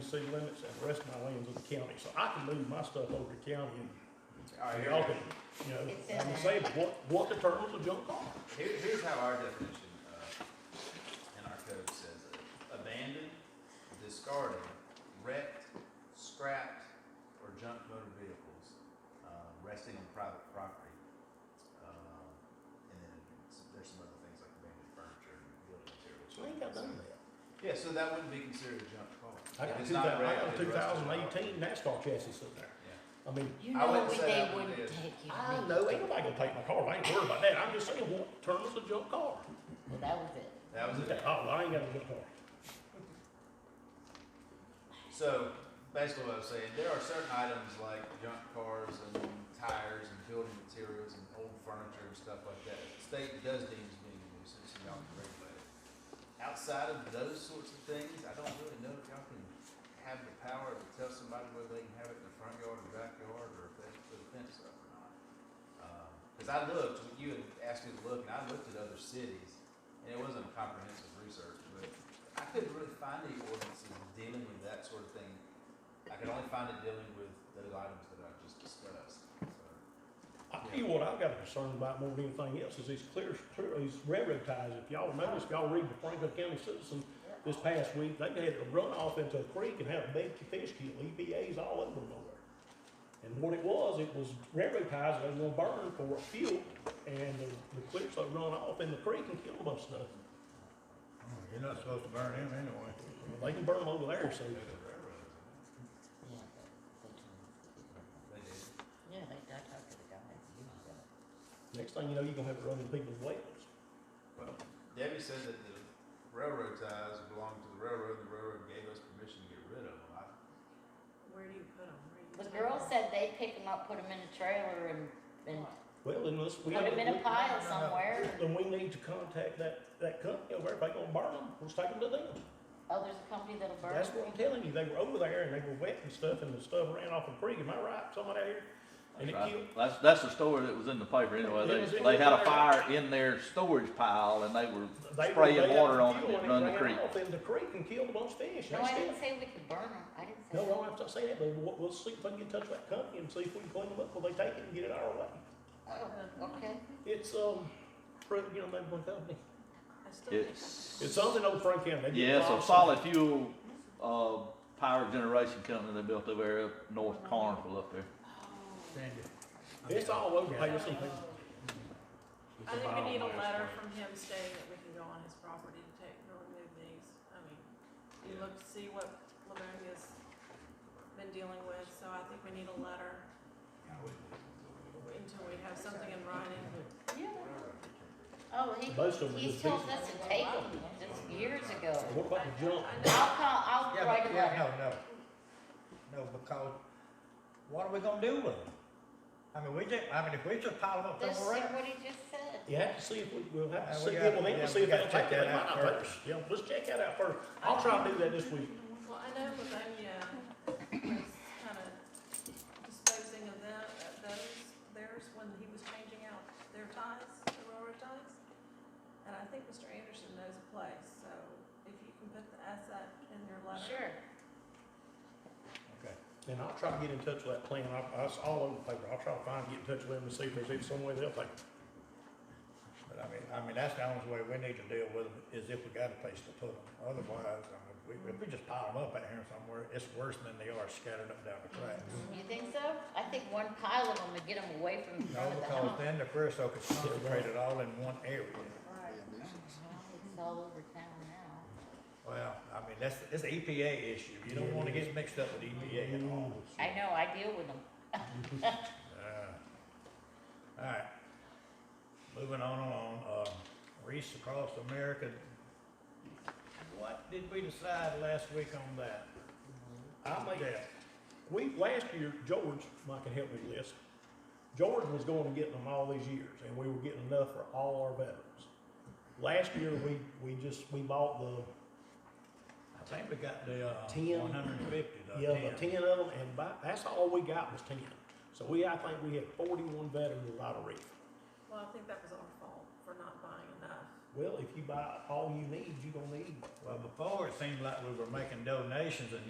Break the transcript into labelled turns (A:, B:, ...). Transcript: A: city limits and the rest of my land's in the county, so I can move my stuff over to county and
B: All right,
A: and
B: here
A: y'all
B: we go.
A: can, you know,
C: It's in
A: I'm
C: there.
A: saying, what, what determines a junk car?
B: Here, here's how our definition, uh, in our code says it. Abandoned, discarded, wrecked, scrapped, or junk motor vehicles, uh, resting on private property. Um, and then s- there's some other things like abandoned furniture and building materials.
A: I ain't got none of that.
B: Yeah, so that wouldn't be considered a junk car.
A: I
B: If
A: got
B: it's
A: two
B: not
A: thousand, I
B: wrecked,
A: got a
B: it
A: two
B: rusts on
A: thousand
B: property.
A: eighteen NASCAR chassis sitting there.
B: Yeah.
A: I mean,
C: You
B: I
C: know
B: wouldn't
C: we-
B: say
C: they
B: that one
C: wouldn't
B: is.
C: take you.
A: I know, ain't nobody gonna take my car, I ain't worried about that, I'm just saying, what determines a junk car?
C: Well, that was it.
B: That was it.
A: Oh, well, I ain't got a junk car.
B: So basically, what I was saying, there are certain items like junk cars and tires and building materials and old furniture and stuff like that. The state does deem as being a nuisance, and y'all can regulate it. Outside of those sorts of things, I don't really know if y'all can have the power to tell somebody whether they can have it in the front yard or backyard or if they have to put a fence up or not. Because I looked, you had asked me to look, and I looked at other cities, and it wasn't a comprehensive research, but I couldn't really find any ordinances dealing with that sort of thing. I could only find it dealing with those items that I just discussed. So,
A: I tell you what, I've got a concern about more than anything else is these clear, clear- these railroad ties. If y'all notice, if y'all read the Franklin County Citizen this past week, they had a runoff into a creek and had a big fish kill, EPA's all over nowhere. And what it was, it was railroad ties that were gonna burn for fuel and the, the clear stuff run off in the creek and killed a bunch of stuff.
D: You're not supposed to burn him anyway.
A: They can burn them over there, so.
B: Go to the railroad.
C: Yeah, they can.
B: They did.
C: Yeah, they, I talked to the guy. He was gonna-
A: Next thing you know, you're gonna have it running people's wells.
B: Well, Debbie said that the railroad ties belonged to the railroad, and the railroad gave us permission to get rid of them. I,
E: Where do you put them? Where do you
C: The
E: take
C: girl
E: 'em?
C: said they pick them up, put them in a trailer and, and
A: Well, then let's. we
C: put them in a
A: we-
C: pile somewhere.
A: Then we need to contact that, that company over there. If they gonna burn them, let's take them to them.
C: Oh, there's a company that'll burn
A: That's
C: them.
A: what I'm telling you, they were over there and they were wet and stuff, and the stuff ran off the creek, am I right, somebody out here? And it
F: Right.
A: killed,
F: That's, that's the story that was in the paper
A: It was
F: anyway. They,
A: in
F: they
A: the
F: had a
A: paper.
F: fire in their storage pile and they
A: they
F: were
A: were, they
F: spraying
A: had
F: water on
A: some
F: it
A: fuel
F: and it run the
A: ran
F: creek.
A: off in the creek and killed a bunch of fish,
C: No,
A: They
C: I
A: still-
C: didn't say we could burn them. I didn't say.
A: No,
C: that.
A: well, I'm not saying that, but we'll, we'll see if I can get in touch with that company and see if we can clean them up before they take it and get it our way.
C: Oh, okay.
A: It's, um, Fred, you know, that one company,
E: I still think
F: It's,
A: it's something over Frank County. They do
F: yeah, it's
A: lot
F: a
A: of
F: solid
A: stuff.
F: fuel, uh, power generation company they built over there, up north of Carnival up there.
D: Sandy.
A: It's all over, hey, listen, hey,
E: I think we need a letter from him stating that we can go on his property to take, to remove these. I mean, you
B: Yeah.
E: look to see what Livonia's been dealing with, so I think we need a letter
B: I wouldn't do it.
E: until we have something in writing.
C: Oh,
A: Most of them
C: he,
A: are
C: he's
A: just
C: told
A: pieces.
C: us to take them just years ago.
A: what about the junk?
E: I- I
C: I'll
E: know.
C: call,
D: Yeah,
C: I'll
D: but,
C: write a letter.
D: yeah, no, no. No, because what are we gonna do with them? I mean, we just, I mean, if we just pile them up
C: Just see
D: somewhere else.
C: what he just said.
A: You have to see if we, we'll have to
D: Uh, we
A: see, yeah,
D: gotta-
A: well, then
D: yeah,
A: we'll see
D: we
A: if they'll
D: gotta
A: take
D: check
A: it, they
D: that
A: might
D: out
A: not take
D: first.
A: it. Yeah, let's check that out first, I'll try to do that this week.
E: Well, I know Livonia was kind of disposing of them, of those, theirs, when he was changing out their ties, the railroad ties. And I think Mr. Anderson knows a place, so if you can put the asset in your letter.
C: Sure.
D: Okay.
A: And I'll try to get in touch with that plan, I, I, it's all over the paper, I'll try to find, get in touch with them and see if there's even some way they'll take it.
D: But I mean, I mean, that's the only way we need to deal with them, is if we got a place to put them. Otherwise, I mean, we, if we just pile them up out here somewhere, it's worse than they are scattered up down the tracks.
C: You think so? I think one pile of them would get them away from the
D: No,
C: front of the
D: because
C: house.
D: then the creosote is concentrated all in one area.
E: Right.
C: It's all over town now.
D: Well, I mean, that's, it's an EPA issue. You don't wanna get mixed up with EPA at all.
C: I know, I deal with them.
D: Uh, All right. Moving on along, uh, Reese Across America. What did we decide last week on that?
A: I make
D: Yeah.
A: We, last year, George, Mike can help me with this, George was going and getting them all these years, and we were getting enough for all our veterans. Last year, we, we just, we bought the,
D: I think we got the,
A: Ten.
D: uh, one hundred and fifty, the
A: yeah, the
D: ten.
A: ten of them, and by, that's all we got was ten. So we, I think we had forty-one veterans without a reef.
E: Well, I think that was our fault for not buying enough.
A: Well, if you buy all you need, you gonna need
D: Well, before it seemed like we were making donations and